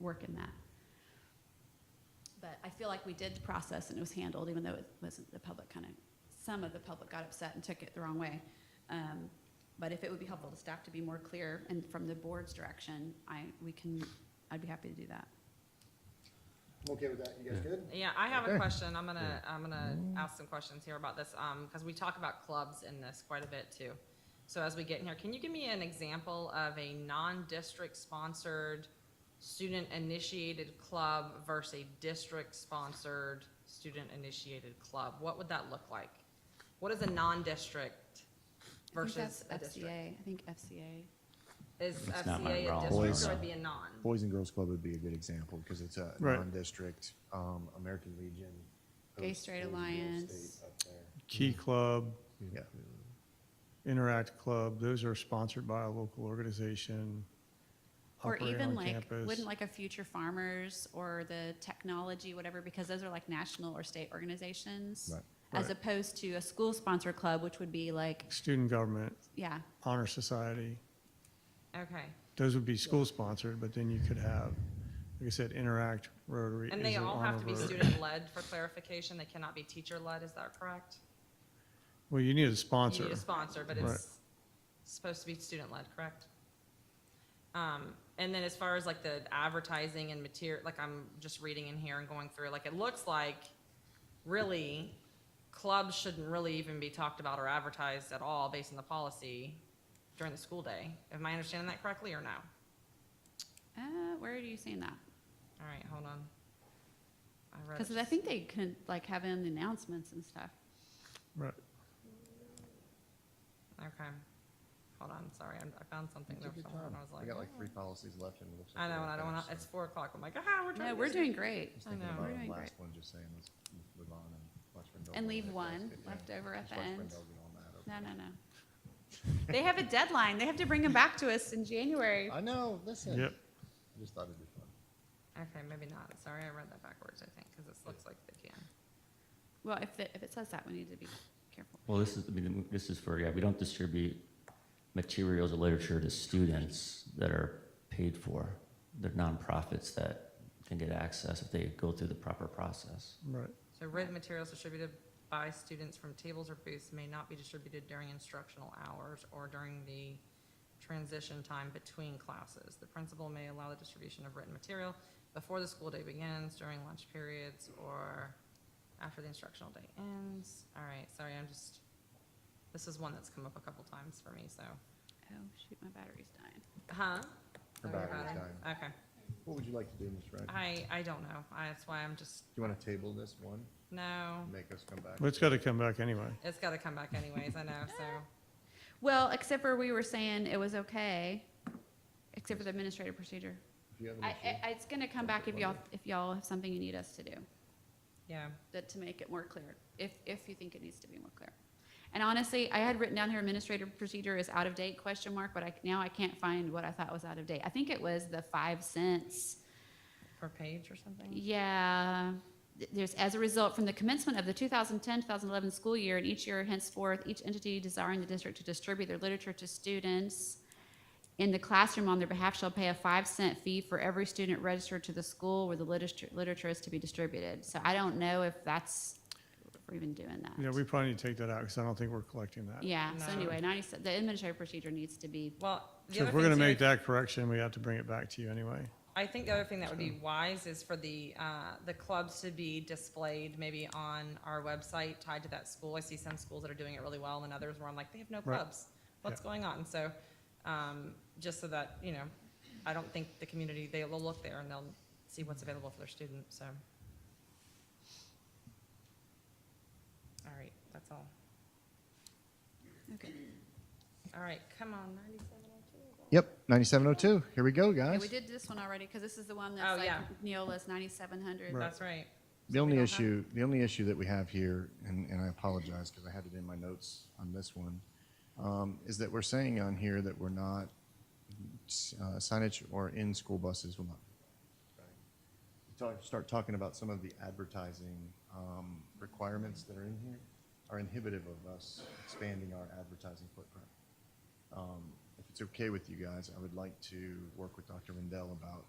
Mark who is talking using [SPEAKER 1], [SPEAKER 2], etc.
[SPEAKER 1] work in that. But I feel like we did the process and it was handled, even though it wasn't the public kind of, some of the public got upset and took it the wrong way. Um, But if it would be helpful to staff to be more clear and from the board's direction, I, we can, I'd be happy to do that.
[SPEAKER 2] I'm okay with that. You guys
[SPEAKER 3] Yeah.
[SPEAKER 2] good?
[SPEAKER 4] Yeah, I have
[SPEAKER 2] Okay.
[SPEAKER 4] a question. I'm gonna, I'm gonna ask some questions here about this, um, because we talk about clubs in this quite a bit too. So as we get in here, can you give me an example of a non-district sponsored, student-initiated club versus a district-sponsored, student-initiated club? What would that look like? What is a non-district
[SPEAKER 1] I think
[SPEAKER 4] versus a
[SPEAKER 1] that's
[SPEAKER 4] district?
[SPEAKER 1] FCA, I think FCA.
[SPEAKER 4] Is
[SPEAKER 3] It's not my
[SPEAKER 4] FCA
[SPEAKER 3] realm.
[SPEAKER 4] a district
[SPEAKER 3] Boys.
[SPEAKER 4] or would it be a non?
[SPEAKER 5] Boys and Girls Club would be a good example because it's a
[SPEAKER 6] Right.
[SPEAKER 5] non-district um, American Legion.
[SPEAKER 1] Gay
[SPEAKER 5] hosts
[SPEAKER 1] Straight
[SPEAKER 5] Boys and Girls
[SPEAKER 1] Alliance.
[SPEAKER 5] State up there.
[SPEAKER 6] Key Club,
[SPEAKER 5] Yeah,
[SPEAKER 6] Interact Club, those are sponsored by a local organization.
[SPEAKER 1] Or
[SPEAKER 6] operate
[SPEAKER 1] even
[SPEAKER 6] on
[SPEAKER 1] like,
[SPEAKER 6] campus.
[SPEAKER 1] wouldn't like a Future Farmers or the technology, whatever, because those are like national or state organizations.
[SPEAKER 5] Right.
[SPEAKER 1] As
[SPEAKER 6] Right.
[SPEAKER 1] opposed to a school sponsor club, which would be like,
[SPEAKER 6] Student Government,
[SPEAKER 1] yeah,
[SPEAKER 6] Honor Society,
[SPEAKER 4] Okay,
[SPEAKER 6] those would be school-sponsored, but then you could have, like I said, Interact, Rotary.
[SPEAKER 4] and
[SPEAKER 6] is
[SPEAKER 4] they
[SPEAKER 6] an
[SPEAKER 4] all have
[SPEAKER 6] honor
[SPEAKER 4] to be
[SPEAKER 6] Rotary.
[SPEAKER 4] student-led for clarification. They cannot be teacher-led, is that correct?
[SPEAKER 6] Well, you need a
[SPEAKER 4] You
[SPEAKER 6] sponsor.
[SPEAKER 4] need a sponsor, but
[SPEAKER 6] Right.
[SPEAKER 4] it's supposed to be student-led, correct? Um, and then as far as like the advertising and material, like I'm just reading in here and going through, like it looks like really clubs shouldn't really even be talked about or advertised at all based on the policy during the school day. Am I understanding that correctly or no?
[SPEAKER 1] uh, where are you seeing that?
[SPEAKER 4] All right, hold on. I read it
[SPEAKER 1] Because I
[SPEAKER 4] just-
[SPEAKER 1] think they can like have in the announcements and stuff.
[SPEAKER 6] Right.
[SPEAKER 4] Okay. Hold on, sorry, I'm- I found something there
[SPEAKER 5] Take your
[SPEAKER 4] somewhere and
[SPEAKER 5] time.
[SPEAKER 4] I was
[SPEAKER 5] We
[SPEAKER 4] like, "Oh."
[SPEAKER 5] got like three policies left and it looks like.
[SPEAKER 4] I know,
[SPEAKER 5] we're
[SPEAKER 4] and I don't
[SPEAKER 5] finished,
[SPEAKER 4] wanna,
[SPEAKER 5] so
[SPEAKER 4] it's four o'clock. I'm like, ah, we're
[SPEAKER 1] No,
[SPEAKER 4] trying to.
[SPEAKER 1] we're doing great.
[SPEAKER 5] just
[SPEAKER 4] I
[SPEAKER 5] thinking
[SPEAKER 4] know.
[SPEAKER 5] about
[SPEAKER 1] We're
[SPEAKER 5] our
[SPEAKER 1] doing
[SPEAKER 5] last
[SPEAKER 1] great.
[SPEAKER 5] one, just saying, let's move on and watch Rendell
[SPEAKER 1] And
[SPEAKER 5] go
[SPEAKER 1] leave
[SPEAKER 5] on that
[SPEAKER 1] one
[SPEAKER 5] basket, yeah.
[SPEAKER 1] left over at
[SPEAKER 5] Just
[SPEAKER 1] the
[SPEAKER 5] watch
[SPEAKER 1] end.
[SPEAKER 5] Rendell get on that over
[SPEAKER 1] No,
[SPEAKER 5] there.
[SPEAKER 1] no, no. They have a deadline. They have to bring them back to us in January.
[SPEAKER 5] I know, listen.
[SPEAKER 6] Yep.
[SPEAKER 5] I just thought it'd be fun.
[SPEAKER 4] Okay, maybe not. Sorry, I read that backwards, I think, because it looks like they can.
[SPEAKER 1] Well, if, the- if it says that, we need to be careful.
[SPEAKER 3] Well, this is, I mean, this is for, yeah, we don't distribute materials or literature to students that are paid for. They're nonprofits that can get access if they go through the proper process.
[SPEAKER 6] Right.
[SPEAKER 4] So written materials distributed by students from tables or booths may not be distributed during instructional hours or during the transition time between classes. The principal may allow the distribution of written material before the school day begins, during lunch periods, or after the instructional day ends. All right, sorry, I'm just, this is one that's come up a couple times for me, so.
[SPEAKER 1] Oh, shoot, my battery's dying.
[SPEAKER 4] Huh?
[SPEAKER 5] Her
[SPEAKER 4] Sorry
[SPEAKER 5] battery's
[SPEAKER 4] about it. Okay.
[SPEAKER 5] What would you like to do, Ms. Wright? Do
[SPEAKER 4] I, I don't know. I, that's why I'm just,
[SPEAKER 5] you want to table this one
[SPEAKER 4] no,
[SPEAKER 5] and make us come back?
[SPEAKER 6] But it's got to come back anyway.
[SPEAKER 4] it's gotta come back anyways, I know, so.
[SPEAKER 1] Well, except for we were saying it was okay, except for the administrative procedure.
[SPEAKER 5] If you have an
[SPEAKER 1] I,
[SPEAKER 5] issue.
[SPEAKER 1] I- it's gonna come back if y'all, if y'all have something you need us to do,
[SPEAKER 4] Yeah,
[SPEAKER 1] that, to make it more clear, if, if you think it needs to be more clear. And honestly, I had written down here administrative procedure is out of date, question mark, but I, now I can't find what I thought was out of date. I think it was the five cents.
[SPEAKER 4] per page or something?
[SPEAKER 1] Yeah, Th- there's, as a result, from the commencement of the 2010, 2011 school year and each year henceforth, each entity desiring the district to distribute their literature to students in the classroom on their behalf shall pay a five cent fee for every student registered to the school where the literature, literature is to be distributed. So I don't know if that's, if we're even doing that.
[SPEAKER 6] Yeah, we probably need to take that out because I don't think we're collecting that.
[SPEAKER 1] Yeah, so
[SPEAKER 4] No.
[SPEAKER 1] anyway, 97, the administrative procedure needs to be,
[SPEAKER 4] Well, the
[SPEAKER 6] So
[SPEAKER 4] other
[SPEAKER 6] if we're going to
[SPEAKER 4] thing
[SPEAKER 6] make
[SPEAKER 4] too,
[SPEAKER 6] that correction, we have to bring it back to you anyway.
[SPEAKER 4] I think the other thing that would be wise is for the, uh, the clubs to be displayed maybe on our website tied to that school. I see some schools that are doing it really well and others where I'm like, they have no
[SPEAKER 6] Right.
[SPEAKER 4] clubs. What's
[SPEAKER 6] Yeah.
[SPEAKER 4] going on? So, um, just so that, you know, I don't think the community, they will look there and they'll see what's available for their students, so. All right, that's all.
[SPEAKER 1] okay.
[SPEAKER 4] All right, come on, ninety-seven oh two.
[SPEAKER 5] Yep, 9702. Here we go,
[SPEAKER 1] Yeah,
[SPEAKER 5] guys.
[SPEAKER 1] we did this one already, because this is the one
[SPEAKER 4] Oh,
[SPEAKER 1] that's like
[SPEAKER 4] yeah.
[SPEAKER 1] Neola's 9,700.
[SPEAKER 6] Right.
[SPEAKER 4] That's right.
[SPEAKER 5] The only
[SPEAKER 4] don't have-
[SPEAKER 5] issue, the only issue that we have here, and, and I apologize because I had it in my notes on this one, um, is that we're saying on here that we're not, uh, signage or in school buses will not. Talk, start talking about some of the advertising, um, requirements that are in here are inhibitive of us expanding our advertising footprint. Um, if it's okay with you guys, I would like to work with Dr. Rendell about